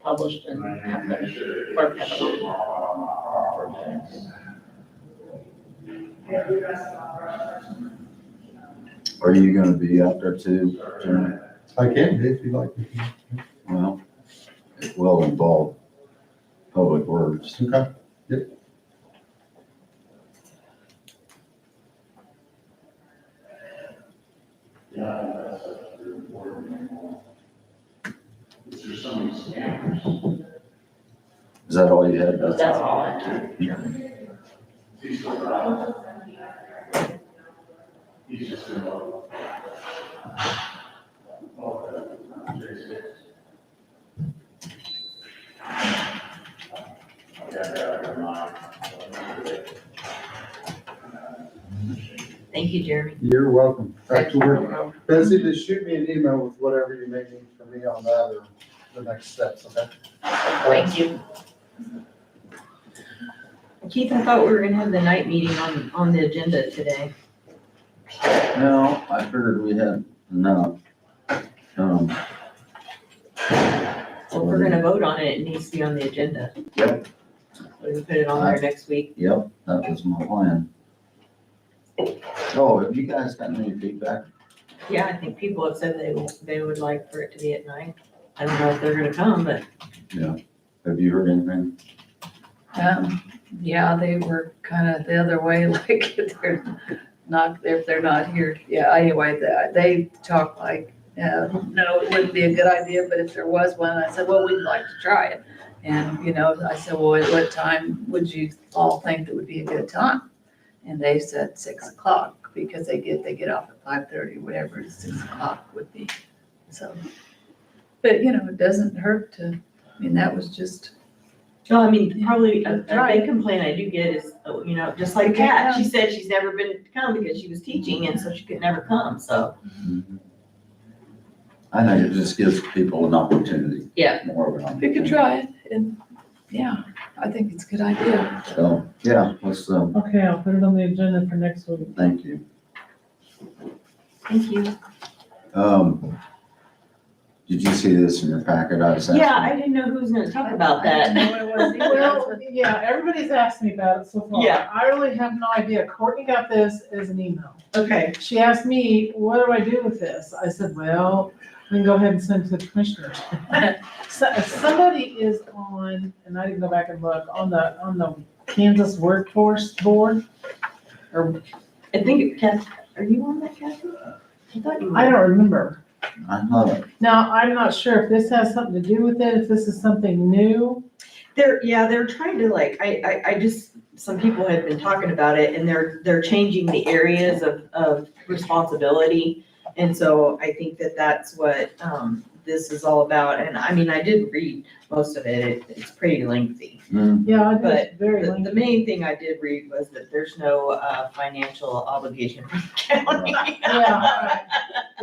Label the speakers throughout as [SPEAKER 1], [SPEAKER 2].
[SPEAKER 1] published and have the clerk have it.
[SPEAKER 2] Are you gonna be out there too, Jeremy?
[SPEAKER 3] I can, if you like.
[SPEAKER 2] Well, it will involve public works.
[SPEAKER 3] Okay.
[SPEAKER 2] Is that all you had? That's
[SPEAKER 1] That's all I have. Thank you, Jeremy.
[SPEAKER 3] You're welcome. Back
[SPEAKER 1] Thanks
[SPEAKER 3] to
[SPEAKER 1] for
[SPEAKER 3] work.
[SPEAKER 1] coming over.
[SPEAKER 3] Betsy, just shoot me an email with whatever you may need from me on that or the next steps, okay?
[SPEAKER 1] Thank you.
[SPEAKER 4] Keith, I thought we were gonna have the night meeting on, on the agenda today.
[SPEAKER 2] No, I figured we had enough. Um,
[SPEAKER 4] So if we're gonna vote on it, it needs to be on the agenda.
[SPEAKER 2] Yep.
[SPEAKER 4] We can put it on there next week.
[SPEAKER 2] yep, that was my plan. Oh, have you guys gotten any feedback?
[SPEAKER 4] Yeah, I think people have said they, they would like for it to be at night. I don't know if they're gonna come, but
[SPEAKER 2] Have you heard anything?
[SPEAKER 5] Um, yeah, they were kind of the other way, like if they're not, if they're not here. Yeah, anyway, they- they talk like, uh, no, it wouldn't be a good idea, but if there was one, I said, well, we'd like to try it. And, you know, I said, well, at what time would you all think that would be a good time? And they said six o'clock because they get, they get off at five thirty, whatever, six o'clock would be. So, but you know, it doesn't hurt to, I mean, that was just
[SPEAKER 4] No, I mean, probably a, a
[SPEAKER 5] Right.
[SPEAKER 4] big complaint I do get is, oh, you know, just like Kat, she said she's never been to come because she was teaching and so she could never come, so.
[SPEAKER 2] I think it just gives people an opportunity.
[SPEAKER 4] Yeah.
[SPEAKER 2] More of an
[SPEAKER 5] We could
[SPEAKER 2] opportunity.
[SPEAKER 5] try it, and, yeah, I think it's a good idea.
[SPEAKER 2] So, yeah, let's, um,
[SPEAKER 6] Okay, I'll put it on the agenda for next week.
[SPEAKER 2] thank you.
[SPEAKER 4] Thank you.
[SPEAKER 2] Um, did you see this in your packet? I was asking.
[SPEAKER 4] Yeah, I didn't know who was gonna talk about
[SPEAKER 5] I didn't
[SPEAKER 4] that.
[SPEAKER 5] know what it was either.
[SPEAKER 6] Well, yeah, everybody's asked me about it so far.
[SPEAKER 4] Yeah.
[SPEAKER 6] I really have no idea. Courtney got this as an email.
[SPEAKER 4] Okay.
[SPEAKER 6] She asked me, what do I do with this? I said, well, then go ahead and send it to the commissioners. So, somebody is on, and I didn't go back and look, on the, on the Kansas Workforce Board. Or,
[SPEAKER 4] I think, Kath, are you on that, Kathy? I thought you were.
[SPEAKER 6] I don't remember.
[SPEAKER 2] I thought it.
[SPEAKER 6] Now, I'm not sure if this has something to do with it, if this is something new.
[SPEAKER 4] They're, yeah, they're trying to like, I, I, I just, some people have been talking about it and they're, they're changing the areas of, of responsibility. And so I think that that's what, um, this is all about. And I mean, I did read most of it. It- It's pretty lengthy.
[SPEAKER 2] Mm,
[SPEAKER 6] Yeah, I think
[SPEAKER 4] But
[SPEAKER 6] it's very
[SPEAKER 4] The,
[SPEAKER 6] lengthy.
[SPEAKER 4] the main thing I did read was that there's no, uh, financial obligation for the county.
[SPEAKER 6] Yeah,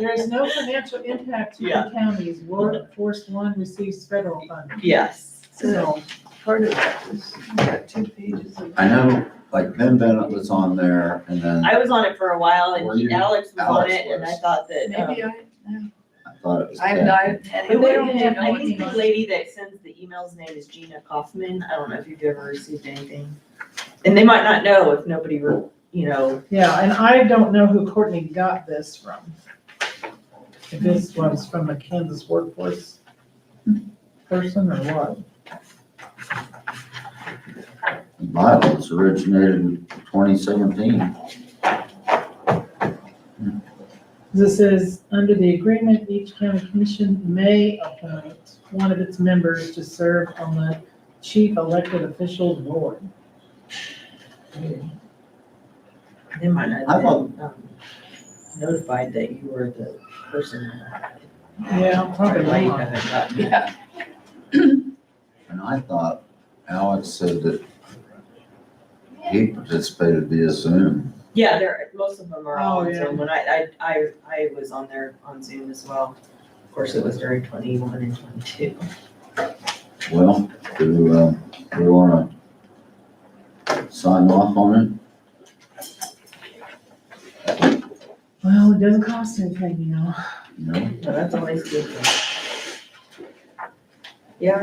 [SPEAKER 6] There is no financial impact to the counties. Workforce One receives federal funding.
[SPEAKER 4] Yes.
[SPEAKER 5] So, part of that was, you got two pages of.
[SPEAKER 2] I know, like Ben Bennett was on there and then
[SPEAKER 4] I was on it for a while
[SPEAKER 2] Were
[SPEAKER 4] and
[SPEAKER 2] you?
[SPEAKER 4] Alex was on
[SPEAKER 2] Alex
[SPEAKER 4] it and I
[SPEAKER 2] was.
[SPEAKER 4] thought that, um,
[SPEAKER 5] Maybe I,
[SPEAKER 2] I thought it was.
[SPEAKER 5] I
[SPEAKER 2] Ted.
[SPEAKER 5] have not had
[SPEAKER 4] We
[SPEAKER 5] any.
[SPEAKER 4] don't have,
[SPEAKER 5] idea
[SPEAKER 4] I
[SPEAKER 5] what
[SPEAKER 4] think the
[SPEAKER 5] it was.
[SPEAKER 4] lady that sends the emails name is Gina Kaufman. I don't know if you've ever received anything. And they might not know if nobody, re- you know,
[SPEAKER 6] Yeah, and I don't know who Courtney got this from. If this was from a Kansas workforce person or what?
[SPEAKER 2] The Bibles originated in twenty seventeen.
[SPEAKER 6] This is, under the agreement, each county commission may appoint one of its members to serve on the chief elected official board.
[SPEAKER 4] they might not
[SPEAKER 2] I
[SPEAKER 4] have
[SPEAKER 2] thought-
[SPEAKER 4] been um, notified that you were the person.
[SPEAKER 6] Yeah,
[SPEAKER 4] Or
[SPEAKER 6] probably
[SPEAKER 4] might
[SPEAKER 6] not.
[SPEAKER 4] have gotten it.
[SPEAKER 5] Yeah,
[SPEAKER 2] And I thought Alex said that he participated via Zoom.
[SPEAKER 4] Yeah, there, most of them are all
[SPEAKER 6] Oh,
[SPEAKER 4] on
[SPEAKER 6] yeah.
[SPEAKER 4] Zoom. When I, I, I, I was on there on Zoom as well. Of course, it was during twenty-one and twenty-two.
[SPEAKER 2] Well, do, um, we wanna sign off on
[SPEAKER 6] Well, it doesn't cost anything, you know.
[SPEAKER 2] it? No?
[SPEAKER 4] No, that's always good. Yeah,